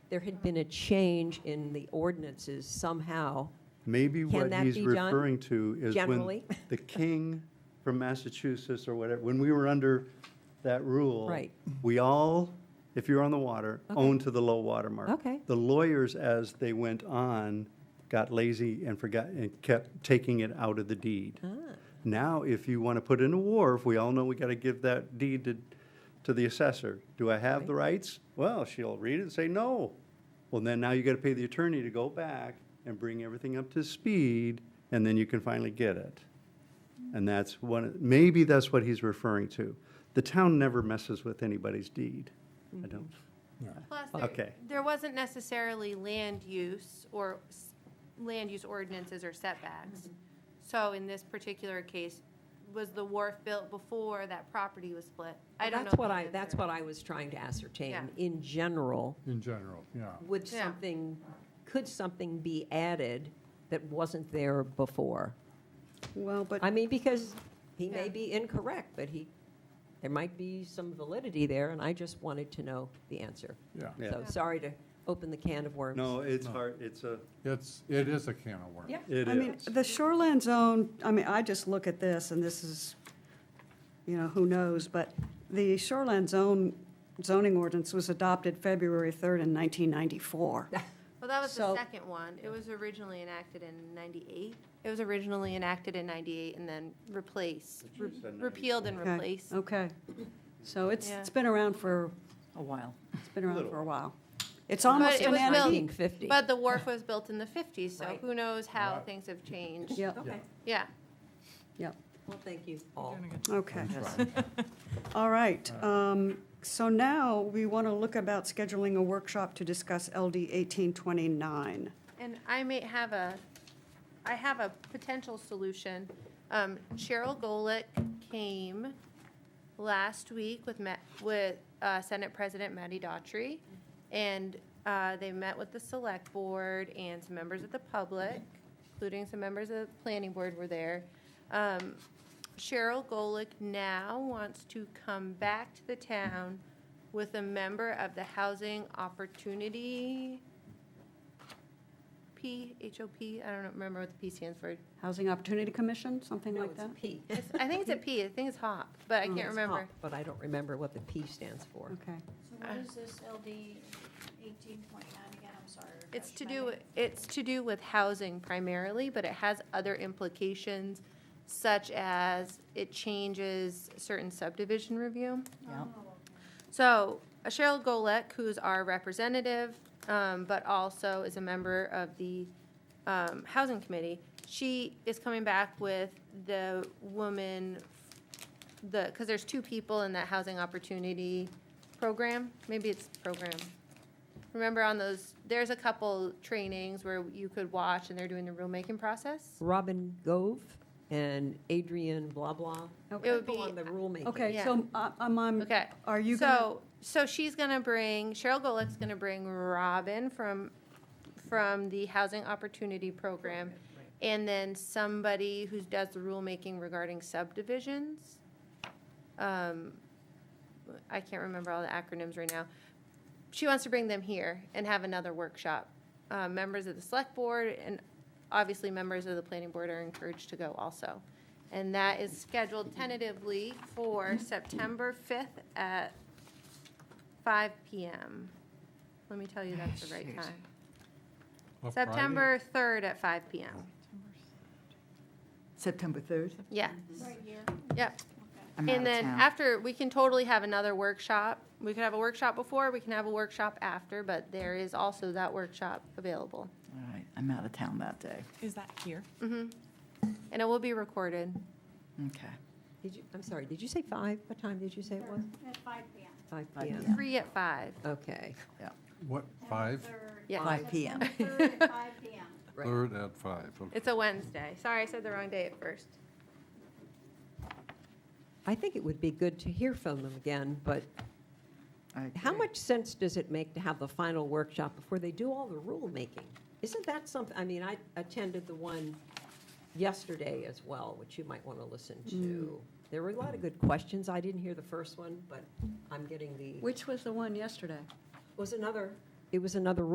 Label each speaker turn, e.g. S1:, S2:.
S1: there had been a change in the ordinances somehow.
S2: Maybe
S1: Can
S2: what
S1: that
S2: he's
S1: be done
S2: referring to is when
S1: generally?
S2: the king from Massachusetts or whatever, when we were under that rule.
S1: Right.
S2: We all, if you're on the water,
S1: Okay.
S2: owned to the low water mark.
S1: Okay.
S2: The lawyers, as they went on, got lazy and forgot, and kept taking it out of the deed. Now, if you want to put in a wharf, we all know we got to give that deed to, to the assessor. Do I have the rights? Well, she'll read it and say, no. Well, then now you got to pay the attorney to go back and bring everything up to speed, and then you can finally get it. And that's one, maybe that's what he's referring to. The town never messes with anybody's deed. I don't,
S3: Plus, there-
S2: Okay.
S3: there wasn't necessarily land use or s- land use ordinances or setbacks. So in this particular case, was the wharf built before that property was split? I don't know.
S1: That's
S3: the
S1: what I,
S3: answer.
S1: that's what I was trying to ascertain.
S3: Yeah.
S1: In general,
S4: in general, yeah.
S1: would
S3: Yeah.
S1: something, could something be added that wasn't there before?
S5: Well, but
S1: I mean, because he may
S3: Yeah.
S1: be incorrect, but he, there might be some validity there, and I just wanted to know the answer.
S4: Yeah.
S2: Yeah.
S1: So sorry to open the can of worms.
S2: no, it's hard, it's a,
S4: It's, it is a can of worms.
S1: Yeah.
S2: it
S5: I mean,
S2: is.
S5: the shoreland zone, I mean, I just look at this, and this is, you know, who knows, but the shoreland zone zoning ordinance was adopted February 3rd in 1994.
S3: Well, that was the
S5: So-
S3: second one. It was originally enacted in 98. It was originally enacted in 98 and then replaced,
S2: It should've said
S3: repealed and
S5: Okay,
S3: replaced.
S5: Okay. So it's,
S3: Yeah.
S5: it's been around for,
S6: a while.
S5: it's been around
S2: Little.
S5: for a while. It's almost
S3: it
S5: an
S3: was built-
S5: antique.
S1: 1950.
S3: But the wharf was built in the 50s, so
S1: Right.
S3: who knows how
S4: Right.
S3: things have changed.
S5: Yep,
S1: Okay,
S3: Yeah.
S5: yep,
S1: well, thank you all.
S3: Oh.
S5: okay.
S4: Right.
S5: All right, um, so now we want to look about scheduling a workshop to discuss LD 1829.
S3: And I may have a, I have a potential solution. Um, Cheryl Golick came last week with, Ma- with uh, Senate President Matty Daughtry, and uh, they met with the Select Board and some members of the public, including some members of the Planning Board were there. Um, Cheryl Golick now wants to come back to the town with a member of the Housing Opportunity P, H-O-P, I don't remember what the P stands for.
S5: Housing Opportunity Commission, something
S1: No,
S5: like
S1: it's
S5: that?
S1: P.
S3: It's- I think it's a P, I think it's HOP, but I can't
S1: Mm, It's
S3: remember.
S1: HOP, But I don't remember what the P stands for.
S5: Okay.
S7: So what is this LD eighteen twenty-nine again? I'm sorry.
S3: It's
S7: refresh
S3: to
S7: my
S3: do,
S7: memory.
S3: it's to do with housing primarily, but it has other implications such as it changes certain subdivision review.
S6: Yeah.
S7: Oh,
S3: So uh, Cheryl Golek, who's our representative, um, but also is a member of the um, Housing Committee, she is coming back with the woman, the, because there's two people in that Housing Opportunity Program, maybe it's program. Remember on those, there's a couple trainings where you could watch and they're doing the rulemaking process?
S1: Robin Gove and Adrian blah blah.
S3: It would
S1: People
S3: be
S1: on the rulemaking.
S5: Okay,
S3: Yeah.
S5: so I- I'm, on.
S3: Okay.
S5: are you going
S3: So, so she's gonna bring, Cheryl Golick's gonna bring Robin from, from the Housing Opportunity Program. And then somebody who does the rulemaking regarding subdivisions. Um, I can't remember all the acronyms right now. She wants to bring them here and have another workshop. Uh, members of the select board and obviously members of the planning board are encouraged to go also. And that is scheduled tentatively for September 5th at 5 PM. Let me tell you that's the right time.
S4: What Friday?
S3: September 3rd at 5
S6: Oh.
S3: PM.
S6: September 3rd?
S3: Yes,
S7: Right here,
S3: yep.
S7: okay.
S6: I'm out
S3: And
S6: of
S3: then
S6: town.
S3: after, we can totally have another workshop. We could have a workshop before, we can have a workshop after, but there is also that workshop available.
S6: All right, I'm out of town that day.
S8: Is that here?
S3: And it will be recorded.
S6: Okay.
S1: Did you, I'm sorry, did you say five? What time did you say it was?
S7: At five P M.
S1: Five
S6: Five
S1: PM.
S6: PM.
S3: Three at five.
S1: Okay,
S4: What, five?
S3: Yeah.
S6: Five PM.
S7: Third at five P M.
S1: right.
S4: Third at five, okay.
S3: It's a Wednesday. Sorry, I said the wrong day at first.
S1: I think it would be good to hear from them again, but
S6: I
S1: how
S6: agree.
S1: much sense does it make to have the final workshop before they do all the rulemaking? Isn't that something, I mean, I attended the one yesterday as well, which you might want to listen to.
S3: Mm.
S1: There were a lot of good questions. I didn't hear the first one, but I'm getting
S5: to,
S1: the,
S5: which was the one yesterday?
S1: was another it was another